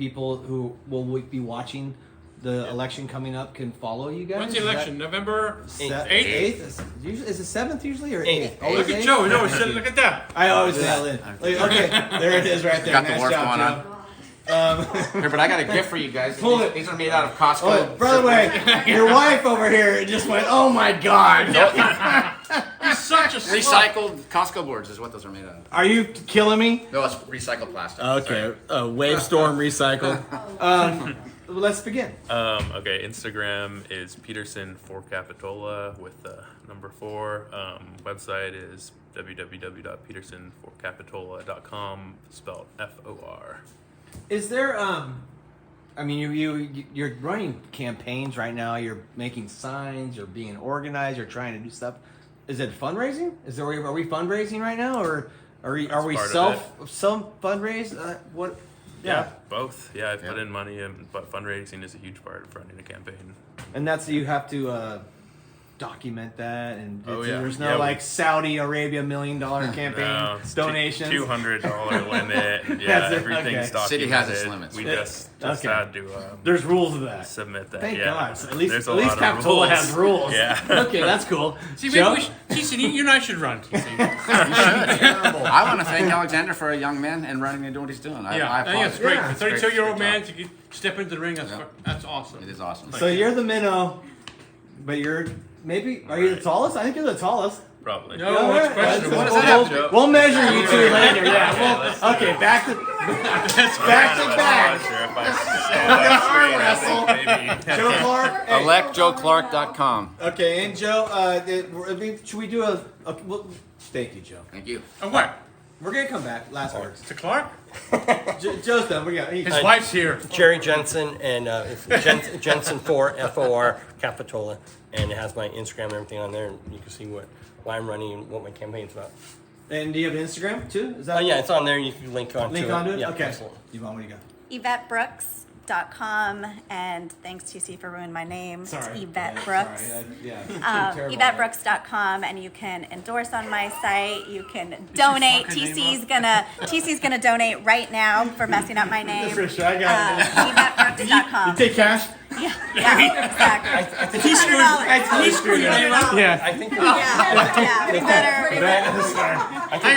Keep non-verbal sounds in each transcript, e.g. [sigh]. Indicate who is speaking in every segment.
Speaker 1: people who will be watching the election coming up can follow you guys?
Speaker 2: When's the
Speaker 1: Is that-
Speaker 2: election? November
Speaker 1: Se-
Speaker 2: eighth.
Speaker 1: Eighth is, usually, is it seventh usually or eighth?
Speaker 3: Eighth.
Speaker 2: Look
Speaker 1: Always
Speaker 2: at
Speaker 1: eighth?
Speaker 2: Joe. No, shit, look at that.
Speaker 1: I always
Speaker 3: Yeah.
Speaker 1: nail in. Like, okay, there it is right there.
Speaker 3: Got the
Speaker 1: nice
Speaker 3: wharf
Speaker 1: job,
Speaker 3: going
Speaker 1: Joe.
Speaker 4: [laughs]
Speaker 3: Here, but I got a gift for you guys.
Speaker 1: Pull
Speaker 3: these,
Speaker 1: it.
Speaker 3: these are made out of Costco.
Speaker 1: [laughs] Oh, by the way, your wife over here just went, "Oh my god,
Speaker 2: He's such a slut.
Speaker 3: Recycled Costco boards is what those are made out of.
Speaker 1: are you killing me?"
Speaker 3: No, it's recycled plastic.
Speaker 4: Okay, uh, wave storm recycle.
Speaker 1: Um, let's begin.
Speaker 5: Um, okay, Instagram is Peterson for Capitola with the number four. Um, website is www.petersonforcapitola.com, spelled F O R.
Speaker 1: Is there um I mean you you you're running campaigns right now, you're making signs, you're being organized, you're trying to do stuff. Is it fundraising? Is there are we fundraising right now or are we are
Speaker 5: That's
Speaker 1: we
Speaker 5: part of
Speaker 1: self some fundraise uh, what yeah.
Speaker 5: both. Yeah, I've put
Speaker 3: Yeah.
Speaker 5: in money, and but fundraising is a huge part of running a campaign.
Speaker 1: And that's you have to uh document that and
Speaker 5: Oh,
Speaker 1: it's-
Speaker 5: yeah.
Speaker 1: there's no
Speaker 5: Yeah, we-
Speaker 1: like Saudi Arabia million
Speaker 5: [laughs]
Speaker 1: dollar campaign donations.
Speaker 5: two hundred dollar
Speaker 1: [laughs]
Speaker 5: limit. and Yeah,
Speaker 1: That's it,
Speaker 5: everything's
Speaker 1: okay.
Speaker 5: documented.
Speaker 3: City has its limits.
Speaker 5: We
Speaker 1: Yeah.
Speaker 5: just, just
Speaker 1: Okay.
Speaker 5: had to um,
Speaker 1: There's rules of that.
Speaker 5: submit that.
Speaker 1: Thank
Speaker 5: yeah.
Speaker 1: God. So at least
Speaker 5: There's a
Speaker 1: at least
Speaker 5: lot of
Speaker 1: Capitola
Speaker 5: rules.
Speaker 1: has rules.
Speaker 5: Yeah.
Speaker 1: [laughs] okay, that's cool.
Speaker 2: See, maybe
Speaker 1: Joe?
Speaker 2: we should, Jason, you you and I should run.
Speaker 3: [laughs] I want to thank Alexander for a young man and running and doing what he's doing. I,
Speaker 2: Yeah,
Speaker 3: I
Speaker 2: I think that's
Speaker 3: applaud
Speaker 2: great.
Speaker 1: Yeah.
Speaker 2: For
Speaker 3: It's great.
Speaker 2: 32 year old
Speaker 3: Good
Speaker 2: man
Speaker 3: job.
Speaker 2: to get- step into the ring, that's,
Speaker 3: Yeah.
Speaker 2: fu- that's awesome.
Speaker 3: It is awesome.
Speaker 1: So you're the minnow, but you're maybe are you the
Speaker 5: Right.
Speaker 1: tallest? I think you're the tallest.
Speaker 5: Probably.
Speaker 2: No, Oh, it's
Speaker 1: Yeah,
Speaker 2: questionable.
Speaker 1: yeah,
Speaker 3: What does
Speaker 1: we'll-
Speaker 3: that have to
Speaker 1: we'll,
Speaker 3: do?
Speaker 1: we'll measure you two later. Yeah.
Speaker 5: Yeah,
Speaker 1: we'll-
Speaker 5: let's
Speaker 1: okay, back to back to
Speaker 5: I'm not
Speaker 1: back.
Speaker 5: sure if I
Speaker 1: Wrestle.
Speaker 5: stole that straight.
Speaker 1: Joe Clark. hey.
Speaker 3: ElectJoeClark.com.
Speaker 1: Okay, and Joe, uh, it- I mean, should we do a? a well, thank you, Joe.
Speaker 3: Thank you.
Speaker 2: And what?
Speaker 1: We're gonna come back. Last words.
Speaker 2: To Clark?
Speaker 1: Jo- Joe's done. We got. He,
Speaker 2: His wife's here.
Speaker 6: Jerry Jensen and uh, it's Jen, Jensen Four F O R Capitola, and it has my Instagram and everything on there, and you can see what why I'm running and what my campaign's about.
Speaker 1: and do you have an Instagram too? Is that?
Speaker 6: Oh yeah, it's on there. You can link on
Speaker 1: Link
Speaker 6: to
Speaker 1: onto
Speaker 6: it.
Speaker 1: it.
Speaker 6: Yeah,
Speaker 1: okay.
Speaker 6: absolutely.
Speaker 1: Yvonne, what do you got?
Speaker 7: YvetteBrooks.com and thanks TC for ruining my name.
Speaker 1: Sorry.
Speaker 7: It's Yvette
Speaker 1: Yeah,
Speaker 7: Brooks.
Speaker 1: Sorry. I- yeah.
Speaker 7: Um,
Speaker 1: Terrible.
Speaker 7: YvetteBrooks.com and you can endorse on my site. You can donate.
Speaker 2: fucking name
Speaker 7: TC's gonna TC's gonna donate right now for messing up
Speaker 1: [laughs]
Speaker 7: my name.
Speaker 1: Tricia, I got it.
Speaker 7: Uh, YvetteBrooks.com.
Speaker 1: Take cash.
Speaker 7: Yeah, yeah, exactly.
Speaker 1: He screwed-
Speaker 7: $200.
Speaker 1: he screwed your name up. Yeah.
Speaker 6: I think
Speaker 1: [laughs]
Speaker 7: Yeah, yeah, we better.
Speaker 2: Hang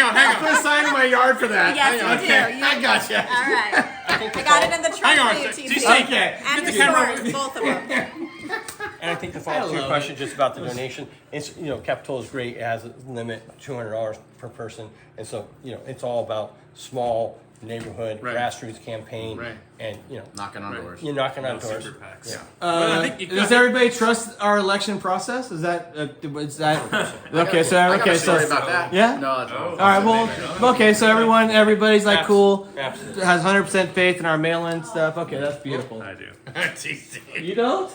Speaker 2: on, hang on.
Speaker 1: I signed in my yard for that.
Speaker 7: Yes,
Speaker 1: Hang on.
Speaker 7: you do.
Speaker 1: okay.
Speaker 7: You-
Speaker 1: I got you.
Speaker 7: All right. I got it in the
Speaker 2: Hang on,
Speaker 7: trunk for you,
Speaker 2: TC.
Speaker 7: TC.
Speaker 1: Okay.
Speaker 7: And
Speaker 2: the
Speaker 7: your
Speaker 2: camera
Speaker 7: sword, both of them.
Speaker 6: And I think the follow-up to
Speaker 1: love
Speaker 6: your question just about the donation, it's, you know, Capitol is great, it has a limit, two hundred dollars per person. And so, you know, it's all about small neighborhood
Speaker 2: Right.
Speaker 6: grassroots campaign.
Speaker 2: Right.
Speaker 6: And, you know,
Speaker 3: Knocking on
Speaker 2: Right.
Speaker 3: doors.
Speaker 6: you're knocking on
Speaker 5: No
Speaker 6: doors.
Speaker 5: super packs.
Speaker 6: Yeah.
Speaker 2: Well, I
Speaker 1: Uh,
Speaker 2: think you
Speaker 1: does
Speaker 2: got-
Speaker 1: everybody trust our election process? Is that uh, is that
Speaker 3: [laughs] I got
Speaker 1: okay?
Speaker 3: a-
Speaker 1: So
Speaker 3: I got a
Speaker 1: okay,
Speaker 3: story
Speaker 1: so
Speaker 3: about that.
Speaker 1: yeah?
Speaker 3: No, that's all.
Speaker 1: all right. Well, okay. So everyone, everybody's like cool,
Speaker 6: Absolutely.
Speaker 1: has hundred percent faith in our mail-in stuff. Okay, that's beautiful.
Speaker 5: [laughs] I do.
Speaker 2: [laughs] TC.
Speaker 1: You don't?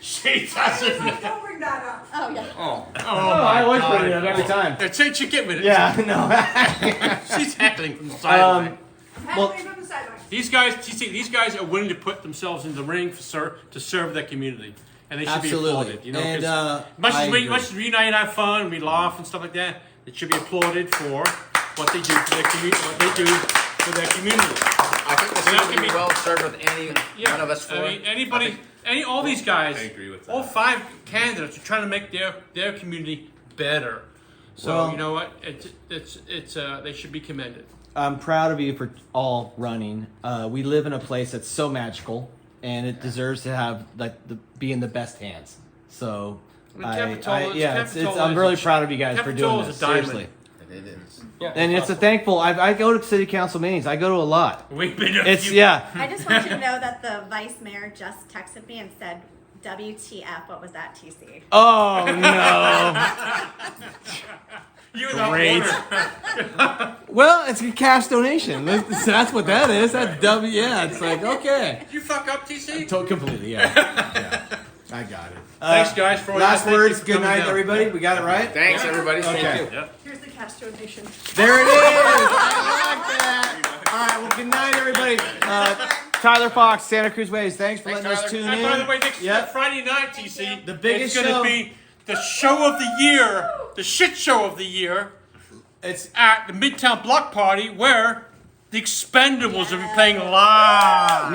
Speaker 2: She doesn't.
Speaker 8: Don't bring that up.
Speaker 7: Oh, yeah.
Speaker 1: Oh, I always bring it up every time.
Speaker 2: That's it, she get with
Speaker 1: [laughs]
Speaker 2: it.
Speaker 1: Yeah,
Speaker 2: She's heckling from the
Speaker 1: no.
Speaker 2: sideline.
Speaker 1: um,
Speaker 8: Halfway from the sideline.
Speaker 2: These guys, TC, these guys are willing to put themselves in the ring for ser- to serve their community, and they should
Speaker 1: Absolutely.
Speaker 2: be applauded. You know, 'cause
Speaker 1: And, uh,
Speaker 2: much
Speaker 1: I
Speaker 2: as we
Speaker 1: agree.
Speaker 2: much as we unite and have fun and we laugh and stuff like that, it should be applauded for what they do for their community. What they do for their community.
Speaker 3: I think this
Speaker 2: That
Speaker 3: is
Speaker 2: could
Speaker 3: going to
Speaker 2: be-
Speaker 3: be well served with any
Speaker 2: Yeah,
Speaker 3: one of us four.
Speaker 2: I mean,
Speaker 3: I
Speaker 2: anybody,
Speaker 3: think-
Speaker 2: any all these guys,
Speaker 5: I agree with
Speaker 2: all
Speaker 5: that.
Speaker 2: five candidates are trying to make their their community better. So
Speaker 1: Well-
Speaker 2: you know what? It's it's it's uh, they should be commended.
Speaker 1: I'm proud of you for all running. Uh, we live in a place that's so magical, and it deserves to have like the, be in the best hands. So,
Speaker 2: And
Speaker 1: I,
Speaker 2: Capitol
Speaker 1: I-
Speaker 2: is-
Speaker 1: yeah, it's, it's,
Speaker 2: Capitol
Speaker 1: I'm
Speaker 2: is
Speaker 1: really
Speaker 2: a-
Speaker 1: proud of you guys for
Speaker 2: Capitol
Speaker 1: doing
Speaker 2: is a
Speaker 1: this.
Speaker 2: diamond.
Speaker 1: Seriously,
Speaker 3: It is.
Speaker 6: Yeah,
Speaker 1: and it's a thankful. I, I go to city council meetings. I go to a lot.
Speaker 2: We've been a
Speaker 1: It's
Speaker 2: few-
Speaker 1: yeah.
Speaker 7: I just want you to know that the vice mayor just texted me and said, WTF, what was that, TC?
Speaker 1: Oh no. [laughs]
Speaker 2: you without
Speaker 1: Great.
Speaker 2: water.
Speaker 1: well, it's a cash donation. That's, that's what that is. That W. Yeah, it's like okay.
Speaker 2: You fuck up, TC.
Speaker 1: To- completely. Yeah. yeah. I got it.
Speaker 2: Thanks, guys, for all your-
Speaker 1: Uh, Last
Speaker 2: thank you
Speaker 1: words.
Speaker 2: for
Speaker 1: Good
Speaker 2: coming
Speaker 1: night,
Speaker 2: down.
Speaker 1: everybody. We got it right.
Speaker 3: Thanks, everybody. Thank you.
Speaker 8: Here's the cash donation.
Speaker 1: There
Speaker 2: [laughs]
Speaker 1: it is. I like that. All right. Well, good night, everybody. Uh, Tyler Fox, Santa Cruz Waves. Thanks for
Speaker 3: Thanks,
Speaker 1: letting us
Speaker 3: Tyler.
Speaker 1: tune
Speaker 2: And
Speaker 1: in.
Speaker 2: by the way, next
Speaker 1: Yep.
Speaker 2: Friday night, TC,
Speaker 1: The biggest
Speaker 2: it's
Speaker 1: show.
Speaker 2: going to be the show of the year, the shit show of the year
Speaker 1: It's
Speaker 2: at the Midtown Block Party, where The Expendables will be playing live.